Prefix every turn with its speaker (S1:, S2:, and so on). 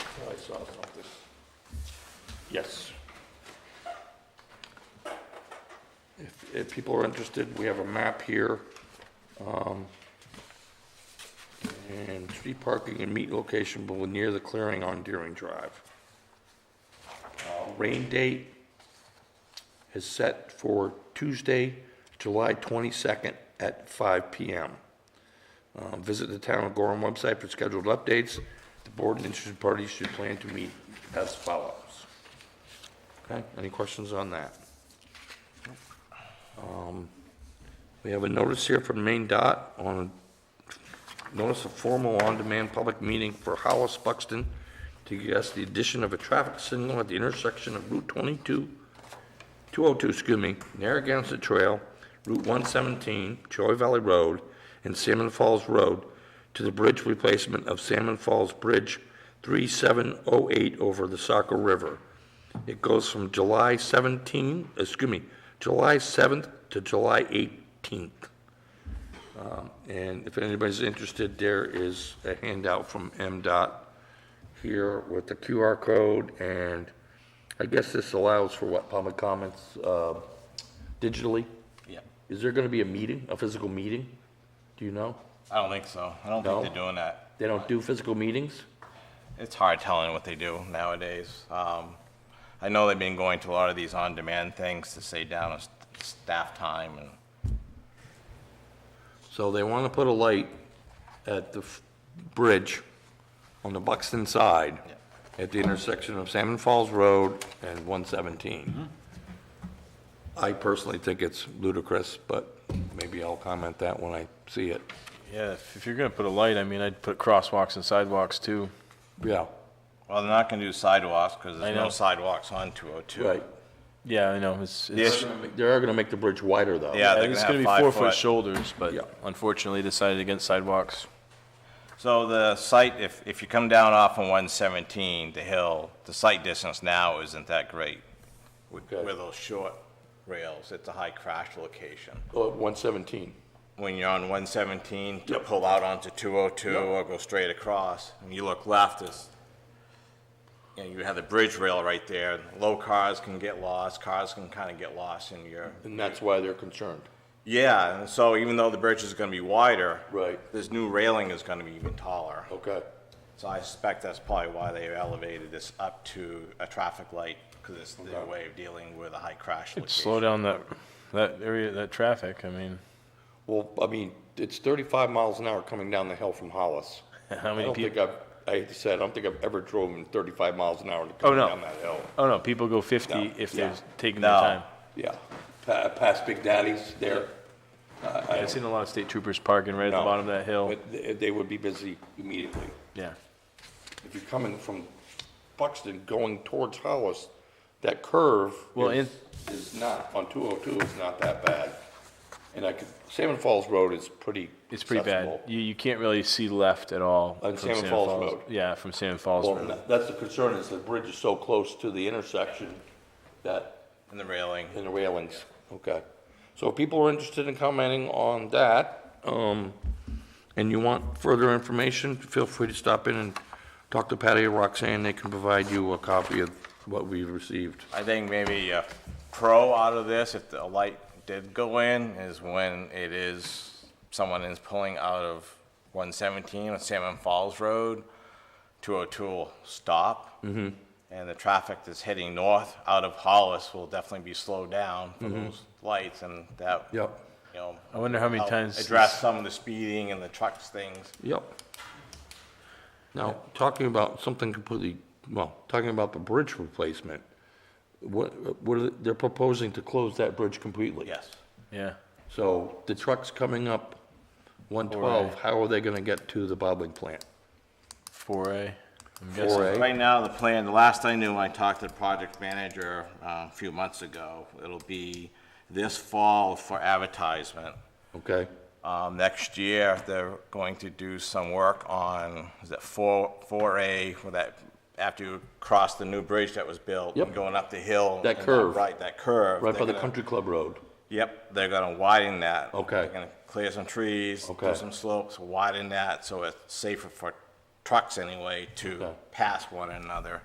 S1: Oh, saw something. Yes. If, if people are interested, we have a map here. um, And street parking and meet location will be near the clearing on Deering Drive. Uh, Rain date is set for Tuesday, July 22nd at 5 PM. Um, Visit the Town of Gorham website for scheduled updates. The board and interested parties should plan to meet as follows. Okay, any questions on that? Um, We have a notice here from Maine Dot on, notice of formal on-demand public meeting for Hollis Buxton to discuss the addition of a traffic signal at the intersection of Route 22 202, excuse me, Narragansett Trail, Route 117, Troy Valley Road, and Salmon Falls Road to the bridge replacement of Salmon Falls Bridge 3708 over the Saco River. It goes from July 17, excuse me, July 7th to July 18th. Um, And if anybody's interested, there is a handout from MDOT here with the QR code, and I guess this allows for what, public comments uh, digitally?
S2: Yeah,
S1: Is there going to be a meeting, a physical meeting? Do you know?
S2: I don't think so. I don't
S1: No?
S2: think they're doing that.
S1: They don't do physical meetings?
S2: It's hard telling what they do nowadays. Um, I know they've been going to a lot of these on-demand things to say down s- staff time and
S1: So they want to put a light at the f- bridge on the Buxton side at the intersection of Salmon Falls Road and 117. I personally think it's ludicrous, but maybe I'll comment that when I see it.
S3: Yeah, if if you're gonna put a light, I mean, I'd put crosswalks and sidewalks too.
S1: Yeah,
S2: Well, they're not gonna do sidewalks, because
S3: I
S2: there's no
S3: know.
S2: sidewalks on 202.
S1: right.
S3: Yeah, I know, it's,
S2: The
S3: it's,
S2: issue-
S1: They are going to make the bridge wider, though.
S2: Yeah,
S3: I
S2: they're
S3: think it's
S2: gonna
S3: gonna
S2: have
S3: be
S2: five
S3: four-foot
S2: foot.
S3: shoulders, but
S1: Yeah.
S3: unfortunately decided against sidewalks.
S2: So the site, if, if you come down off on 117, the hill, the site distance now isn't that great with
S1: Okay.
S2: with those short rails. It's a high crash location.
S1: Oh, 117.
S2: when you're on 117 to pull out onto 202 or go straight across, and you look left, it's, you know, you have the bridge rail right there. Low cars can get lost, cars can kind of get lost in your,
S1: And that's why they're concerned.
S2: yeah, and so even though the bridge is going to be wider,
S1: Right.
S2: this new railing is going to be even taller.
S1: Okay.
S2: So I suspect that's probably why they elevated this up to a traffic light, because it's their way of dealing with a high crash
S3: It'd
S2: location.
S3: slow down that, that area, that traffic, I mean,
S1: Well, I mean, it's 35 miles an hour coming down the hill from Hollis.
S3: how
S1: I
S3: many
S1: don't think
S3: people?
S1: I've, I hate to say, it, I don't think I've ever driven 35 miles an hour to
S3: Oh,
S1: come
S3: no.
S1: down that hill.
S3: Oh, no, people go fifty
S1: No,
S3: if
S1: yeah.
S3: they're taking their
S2: No.
S3: time.
S1: Yeah, Pa- past Big Daddy's there.
S3: Yeah, I've seen a lot of state troopers parking right at the
S1: No.
S3: bottom of that hill,
S1: But they- they would be busy immediately.
S3: yeah.
S1: If you're coming from Buxton going towards Hollis, that curve
S3: Well,
S1: is is not, on 202 is not that bad. And I could, Salmon Falls Road is pretty
S3: It's pretty bad.
S1: accessible.
S3: You, you can't really see left at all.
S1: On
S3: from
S1: Salmon
S3: Salmon
S1: Falls Road.
S3: Yeah, from Salmon Falls
S1: Well,
S3: Road.
S1: tha- that's the concern, is the bridge is so close to the intersection that,
S2: And the railing.
S1: and the railings, okay. So if people are interested in commenting on that, um, and you want further information, feel free to stop in and talk to Patty or Roxanne, they can provide you a copy of what we've received.
S2: I think maybe a pro out of this, if the light did go in, is when it is, someone is pulling out of 117 on Salmon Falls Road to O'Toole stop. And the traffic that's heading north out of Hollis will definitely be slowed down for those lights and that, you
S1: Yep,
S2: know.
S3: I wonder how many
S2: help
S3: times
S2: Address
S3: this-
S2: some of the speeding and the trucks things.
S1: yep. Now, talking about something completely, well, talking about the bridge replacement, what, what, are they- they're proposing to close that bridge completely?
S2: Yes.
S3: Yeah,
S1: So the trucks coming up 112, how are they going to get to the bottling plant?
S3: four A, I'm guessing.
S1: 4A?
S2: Right now, the plan, the last I knew, I talked to the project manager uh, a few months ago, it'll be this fall for advertisement.
S1: Okay,
S2: Um, Next year, they're going to do some work on, is that 4, 4A, where that, after you cross the new bridge that was built?
S1: Yep.
S2: Going up the hill.
S1: That
S2: and
S1: curve.
S2: Right, that curve.
S1: right by
S2: They're
S1: the
S2: gonna-
S1: country club road.
S2: Yep, they're gonna widen that.
S1: Okay.
S2: They're gonna clear some trees,
S1: Okay.
S2: put some slopes, widen that, so it's safer for trucks anyway to pass one another.